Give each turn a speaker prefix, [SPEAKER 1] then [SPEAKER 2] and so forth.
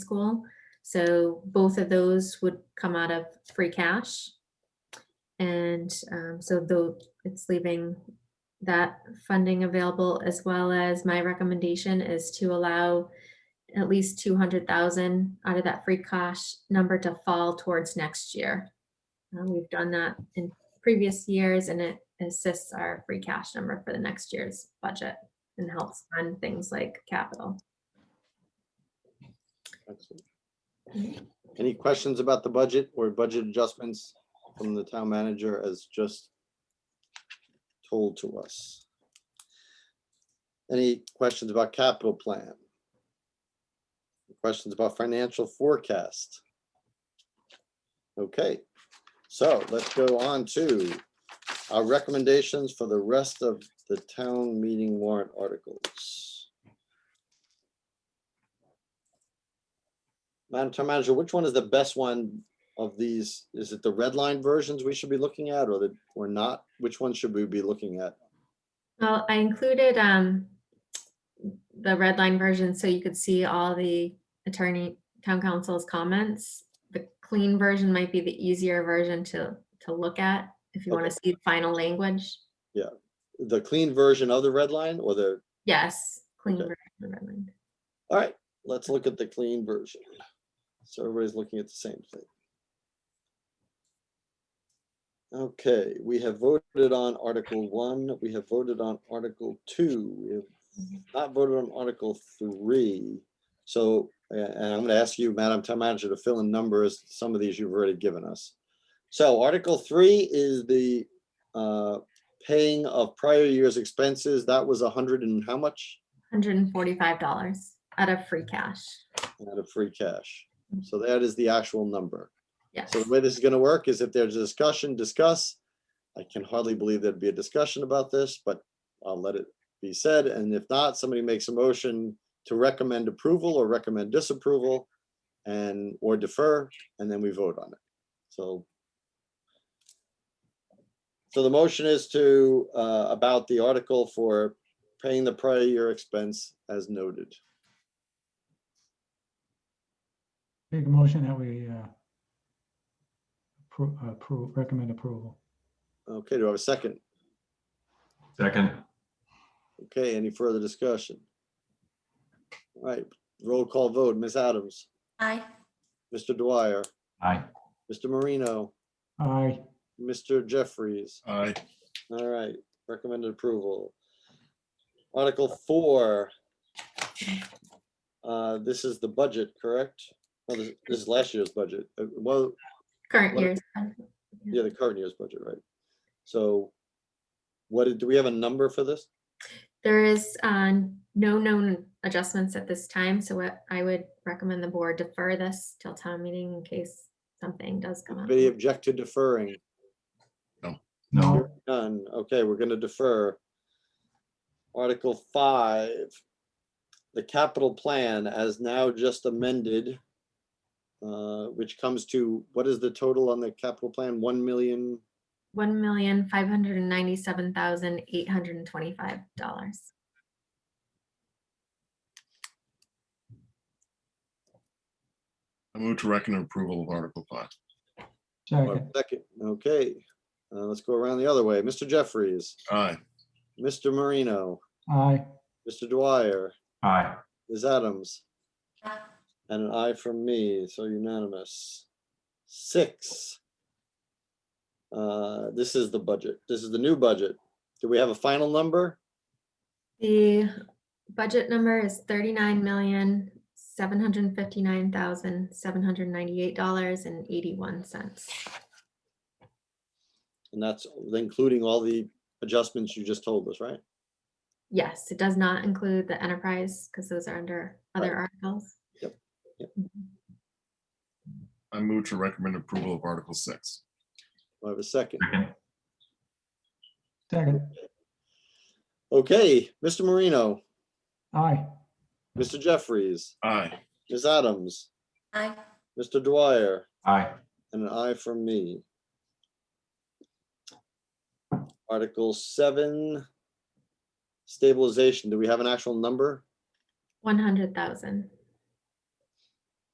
[SPEAKER 1] school. So both of those would come out of free cash. And um, so though it's leaving that funding available as well as my recommendation is to allow at least two hundred thousand out of that free cash number to fall towards next year. Uh, We've done that in previous years and it assists our free cash number for the next year's budget and helps fund things like capital.
[SPEAKER 2] Excellent. Any questions about the budget or budget adjustments from the town manager as just told to us? Any questions about capital plan? Questions about financial forecast? Okay, so let's go on to our recommendations for the rest of the town meeting warrant articles. Madam Town Manager, which one is the best one of these? Is it the red line versions we should be looking at or the, or not? Which one should we be looking at?
[SPEAKER 1] Well, I included um the red line version so you could see all the attorney, town council's comments. The clean version might be the easier version to to look at if you want to see final language.
[SPEAKER 2] The clean version of the red line or the,
[SPEAKER 1] Yes, clean
[SPEAKER 2] Okay.
[SPEAKER 1] version. of red line.
[SPEAKER 2] all right, let's look at the clean version. So everybody's looking at the same thing. Okay, we have voted on Article One, we have voted on Article Two, we have not voted on Article Three. So, a- and I'm gonna ask you, Madam Town Manager, to fill in numbers, some of these you've already given us. So Article Three is the uh, paying of prior year's expenses, that was a hundred and how much?
[SPEAKER 1] $145 out of free cash.
[SPEAKER 2] out of free cash. So that is the actual number.
[SPEAKER 1] Yes.
[SPEAKER 2] So the way this is gonna work is if there's a discussion, discuss. I can hardly believe there'd be a discussion about this, but I'll let it be said. And if not, somebody makes a motion to recommend approval or recommend disapproval and, or defer, and then we vote on it. So so the motion is to, uh, about the article for paying the prior year expense as noted.
[SPEAKER 3] Big motion that we uh, appro- approve, recommend approval.
[SPEAKER 2] Okay, do I have a second?
[SPEAKER 4] Second,
[SPEAKER 2] Okay, any further discussion? All right, roll call vote, Ms. Adams,
[SPEAKER 5] Aye.
[SPEAKER 2] Mr. Dwyer,
[SPEAKER 4] aye.
[SPEAKER 2] Mr. Marino,
[SPEAKER 3] Aye,
[SPEAKER 2] Mr. Jeffries.
[SPEAKER 4] Aye.
[SPEAKER 2] All right, recommended approval. Article four. Uh, this is the budget, correct? Well, this this is last year's budget. Uh, Well,
[SPEAKER 1] Current
[SPEAKER 2] What-
[SPEAKER 1] year's.
[SPEAKER 2] yeah, the current year's budget, right? So what, did- do we have a number for this?
[SPEAKER 1] There is uh, no known adjustments at this time, so what I would recommend the board defer this till town meeting in case something does come up.
[SPEAKER 2] Anybody object to deferring?
[SPEAKER 4] No,
[SPEAKER 2] None. Okay, we're gonna defer. Article five, the capital plan as now just amended, uh, which comes to, what is the total on the capital plan? One million?
[SPEAKER 1] One million, five hundred and ninety-seven thousand, eight hundred and twenty-five dollars.
[SPEAKER 6] I move to recommend approval of Article Five.
[SPEAKER 3] second,
[SPEAKER 2] Second, okay. Uh, let's go around the other way. Mr. Jeffries,
[SPEAKER 6] Aye.
[SPEAKER 2] Mr. Marino,
[SPEAKER 3] aye,
[SPEAKER 2] Mr. Dwyer,
[SPEAKER 4] aye.
[SPEAKER 2] Ms. Adams,
[SPEAKER 5] Aye.
[SPEAKER 2] and an aye from me, so unanimous. Six. Uh, this is the budget. This is the new budget. Do we have a final number?
[SPEAKER 1] The budget number is thirty-nine million, seven hundred and fifty-nine thousand, seven hundred and ninety-eight dollars and eighty-one cents.
[SPEAKER 2] And that's including all the adjustments you just told us, right?
[SPEAKER 1] Yes, it does not include the enterprise because those are under other articles.
[SPEAKER 6] I move to recommend approval of Article Six.
[SPEAKER 2] Do I have a second?
[SPEAKER 4] Second,
[SPEAKER 3] second,
[SPEAKER 2] Okay, Mr. Marino,
[SPEAKER 3] aye,
[SPEAKER 2] Mr. Jeffries,
[SPEAKER 6] Aye.
[SPEAKER 2] Ms. Adams,
[SPEAKER 5] Aye.
[SPEAKER 2] Mr. Dwyer,
[SPEAKER 4] aye.
[SPEAKER 2] and an aye from me. Article seven. Stabilization. Do we have an actual number?
[SPEAKER 1] One hundred thousand.